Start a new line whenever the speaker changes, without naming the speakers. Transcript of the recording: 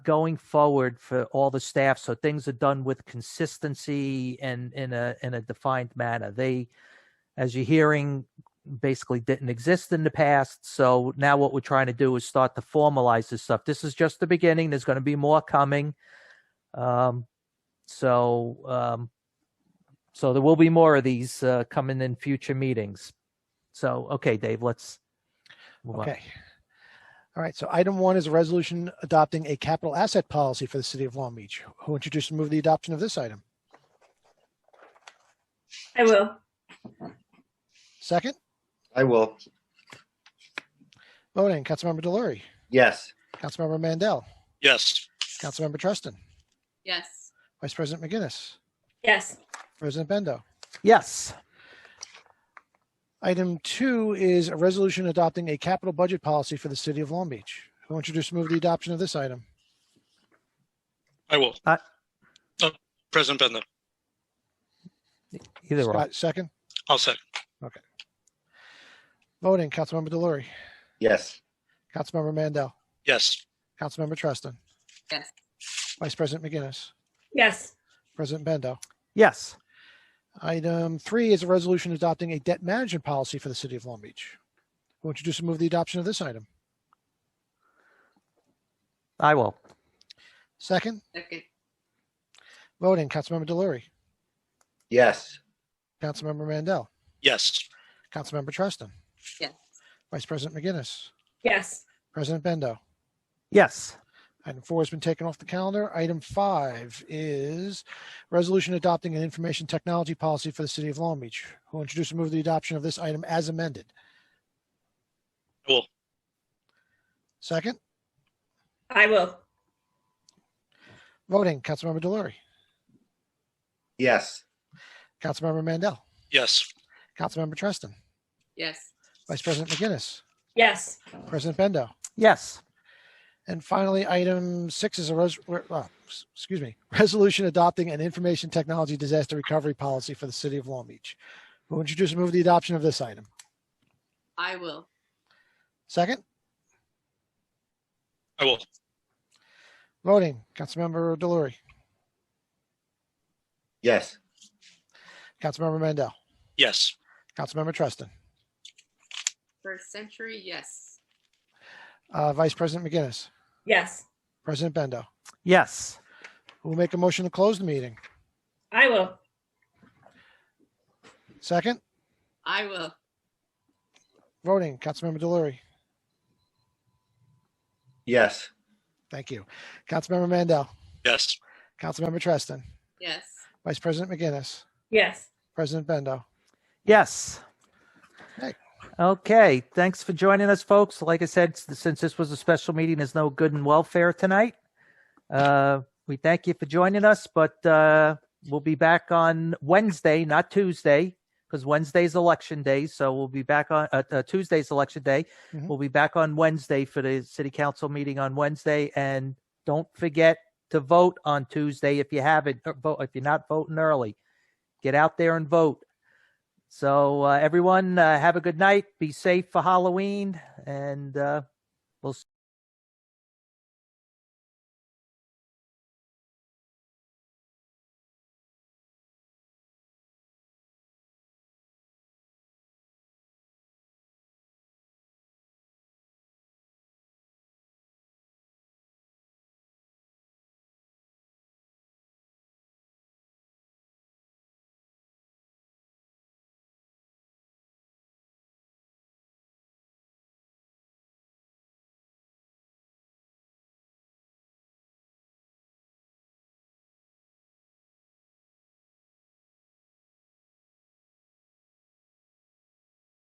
going forward for all the staff so things are done with consistency and in a in a defined manner they as you're hearing basically didn't exist in the past so now what we're trying to do is start to formalize this stuff this is just the beginning there's going to be more coming um so um so there will be more of these uh, coming in future meetings so okay dave let's move on.
Okay. All right, so item one is a resolution adopting a capital asset policy for the city of Long Beach. Who introduced and move the adoption of this item?
I will.
Second,
I will.
voting, Councilmember Delory,
Yes.
Councilmember Mandel,
yes,
Councilmember Trustin,
Yes.
Vice President McGinnis,
Yes.
President Bendo.
yes
Item two is a resolution adopting a capital budget policy for the city of Long Beach. Who introduced and move the adoption of this item?
I will.
Uh,
Uh, President Bendo,
either way
Scott, second,
I'll second.
voting, Councilmember Delory,
Yes.
Councilmember Mandel,
Yes,
Councilmember Trustin.
Yes.
Vice President McGinnis,
Yes.
President Bendo.
yes
Item three is a resolution adopting a debt management policy for the city of Long Beach. Who introduced and move the adoption of this item?
i will
Second,
Second.
voting, Councilmember Delory,
Yes.
Councilmember Mandel,
yes,
Councilmember Treston.
Yes.
Vice President McGinnis,
Yes.
President Bendo.
yes
Item four has been taken off the calendar. Item five is resolution adopting an information technology policy for the city of Long Beach. Who introduced and move the adoption of this item as amended?
I will.
Second,
I will.
voting, Councilmember Delory,
Yes.
Councilmember Mandel,
yes,
Councilmember Treston,
Yes.
Vice President McGinnis,
Yes.
President Bendo.
yes
And finally, item six is a res- re- uh, s- excuse me, resolution adopting an information technology disaster recovery policy for the city of Long Beach. Who introduced and move the adoption of this item?
I will.
Second,
I will.
voting, Councilmember Delory,
Yes.
Councilmember Mandel,
Yes,
Councilmember Treston,
First century. Yes.
uh, Vice President McGinnis,
Yes.
President Bendo.
yes
Who will make a motion to close the meeting?
I will.
Second,
I will.
voting, Councilmember Delory,
Yes.
thank you, Councilmember Mandel,
yes,
Councilmember Treston,
Yes.
Vice President McGinnis,
Yes.
President Bendo.
Yes.
Okay.
Okay, thanks for joining us, folks. Like I said, s- since this was a special meeting, there's no good and welfare tonight. Uh, we thank you for joining us, but uh, we'll be back on Wednesday, not Tuesday, because Wednesday's election day. So we'll be back on uh, uh, Tuesday's election day.
Mhm.
We'll be back on Wednesday for the city council meeting on Wednesday, and don't forget to vote on Tuesday if you haven't uh, vote if you're not voting early. Get out there and vote. So uh, everyone, uh, have a good night. Be safe for Halloween, and uh, we'll.